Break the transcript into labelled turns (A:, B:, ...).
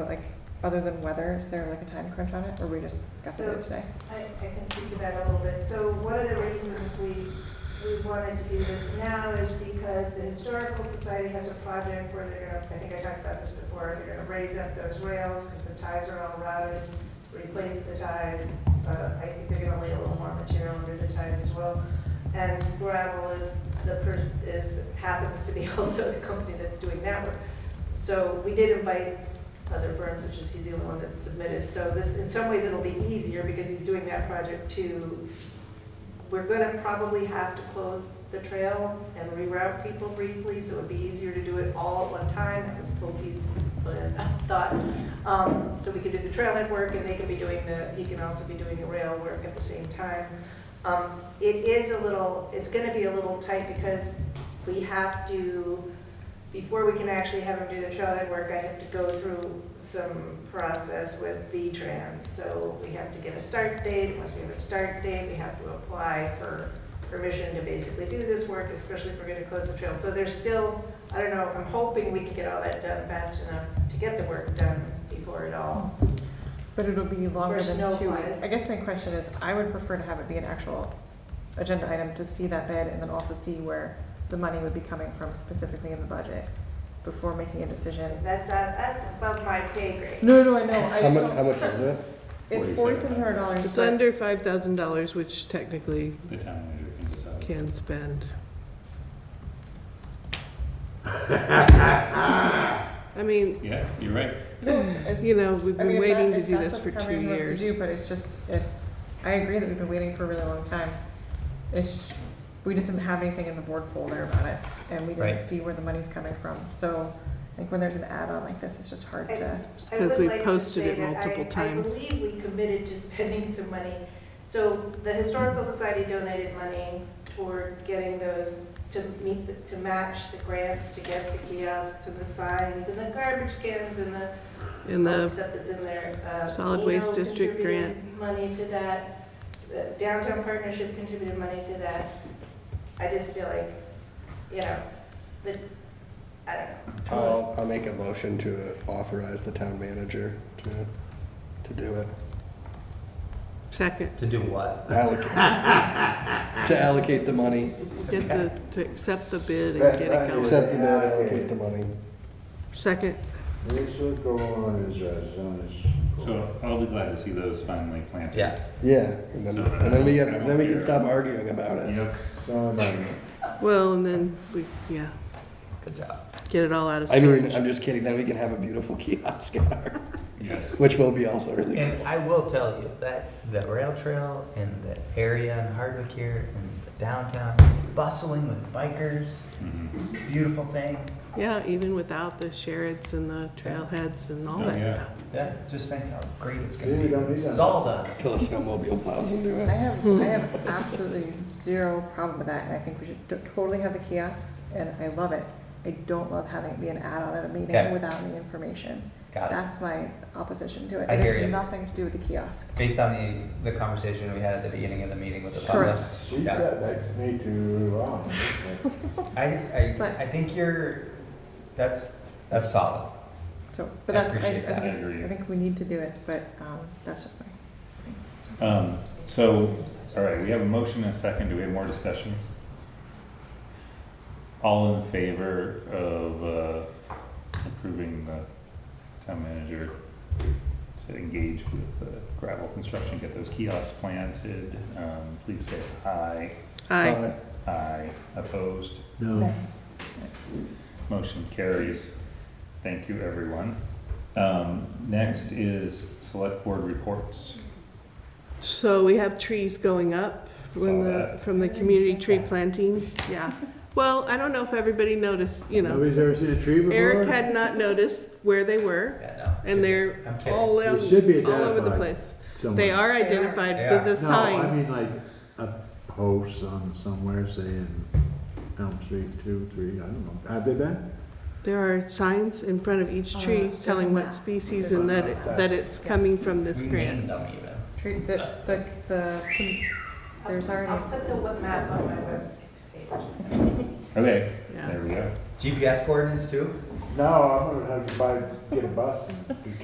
A: But like, other than weather, is there like a time crunch on it, or we just got to do it
B: So-
A: today?
B: I, I can speak to that a little bit. So one of the reasons we, we wanted to do this now is because the Historical Society has a project where they're gonna, I think I talked about this before, they're gonna raise up those rails because the ties are all rotted, replace the ties. Uh, I think they're gonna lay a little more material under the ties as well. And gravel is the person, is, happens to be also the company that's doing that work. So we did invite other firms, which is he's the only one that's submitted. So this, in some ways, it'll be easier because he's doing that project too. We're gonna probably have to close the trail and reroute people briefly, so it'd be easier to do it all at one time. That was Opie's thought. Um, So we could do the trailhead work and they can be doing the, he can also be doing the rail work at the same time. Um, It is a little, it's gonna be a little tight because we have to before we can actually have them do the trailhead work, I have to go through some process with V-Trans. So we have to get a start date, once we have a start date, we have to apply for permission to basically do this work, especially if we're gonna close the trail. So there's still, I don't know, I'm hoping we can get all that done fast enough to get the work done before it all.
A: But it'll be longer
B: For
A: than
B: snow
A: two
B: flies.
A: weeks. I guess my question is, I would prefer to have it be an actual agenda item to see that bid and then also see where the money would be coming from specifically in the budget before making a decision.
B: That's, uh, that's above my pay grade.
A: No, no, no, I know, I
C: How
A: just
C: much, how
A: don't,
C: much is it?
A: it's forty-seven hundred dollars.
D: It's under five thousand dollars, which technically
E: The town manager can decide.
D: can spend. I mean,
E: Yeah, you're right.
D: you know, we've
A: I mean, if that-
D: been waiting to
A: if
D: do
A: that's
D: this
A: what the
D: for two
A: company wants to do,
D: years.
A: But it's just, it's, I agree that we've been waiting for a really long time. It's, we just didn't have anything in the board folder about it, and we didn't
C: Right.
A: see where the money's coming from, so, like, when there's an add-on like this, it's just hard to,
B: I
D: Because
B: would
D: we
B: like to
D: posted
B: say
D: it
B: that I-
D: multiple times.
B: I believe we committed to spending some money. So the Historical Society donated money toward getting those, to meet, the- to match the grants, to get the kiosks and the signs and the garbage cans and the
D: In
B: all the
D: the,
B: stuff that's in there. Uh,
D: solid
B: Eno
D: waste district
B: contributed Money to that, The downtown partnership contributed money to that. I just feel like, you know, the, I don't know.
C: I'll, I'll make a motion to authorize the town manager to, to do it.
D: second,
F: To do what?
C: Allocate, to allocate the money,
D: get the, to accept the bid and get it going.
C: accept the bid, allocate the money.
D: Second,
G: This will go on as a zone.
E: So I'll be glad to see those finally planted.
F: Yeah.
C: Yeah, and then, and then we have, then we can stop arguing about it.
E: Yep.
D: well, and then we, yeah,
F: Good job.
D: get it all out of
C: I mean,
D: storage.
C: I'm just kidding, then we can have a beautiful kiosk in our,
E: Yes.
C: which will be also really cool.
F: And I will tell you that the rail trail and the area in Hardwick here and the downtown is bustling with bikers.
E: Mhm.
F: It's a beautiful thing.
D: Yeah, even without the sherrits and the trailheads and all
E: Oh,
D: that
E: yeah.
D: stuff.
F: Yeah, just think how great it's
G: See,
F: gonna
G: we
F: be.
G: don't need
F: It's
G: that.
F: all done.
C: Till a snowmobile plows into
A: I
C: it.
A: have, I have absolutely zero problem with that, and I think we should t- totally have the kiosks, and I love it. I don't love having it be an add-on at a meeting
F: Okay.
A: without any information.
F: Got it.
A: That's my opposition to it.
F: I
A: It has
F: hear you.
A: nothing to do with the kiosk.
F: Based on the, the conversation we had at the beginning of the meeting with the public.
A: Correct.
G: She
F: Yeah.
G: sat next to me too long.
F: I, I,
A: But-
F: I think you're, that's, that's solid.
A: So, but
F: I
A: that's, I, I think
F: appreciate that.
A: it's,
E: I agree.
A: I think we need to do it, but, um, that's just my.
E: Um, so, all right, we have a motion and a second. Do we have more discussion? All in favor of, uh, approving the town manager to engage with uh, gravel construction, get those kiosks planted, um, please say aye.
D: Aye,
C: Uh,
E: Aye. Opposed?
A: No.
E: Motion carries. Thank you, everyone. Um, next is select board reports.
D: so we have trees going up from
E: Saw
D: the,
E: that.
D: from the community tree planting, yeah. Well, I don't know if everybody noticed, you know,
G: Nobody's ever seen a tree before?
D: Eric had not noticed where they were,
F: Yeah, no.
D: and they're
F: I'm kidding.
D: all, out-
G: It should be
D: all over the
G: identified
D: place.
G: somewhere.
D: They are
F: They
D: identified
F: are.
D: with a
G: No, I
D: sign.
G: mean like a post on somewhere saying Elm Street two, three, I don't know. Have they been?
D: There are signs in front of each
A: Oh,
D: tree
A: there's a
D: telling what
A: map.
D: species and that, it- that it's coming from this
F: We
D: grant.
F: named them even.
A: Treat the, the, the, there's already.
B: I'll put the web map on my web page.
E: Okay,
D: Yeah.
E: there we go.
F: GPS coordinates too?
G: No, I'm gonna have to buy, get a bus and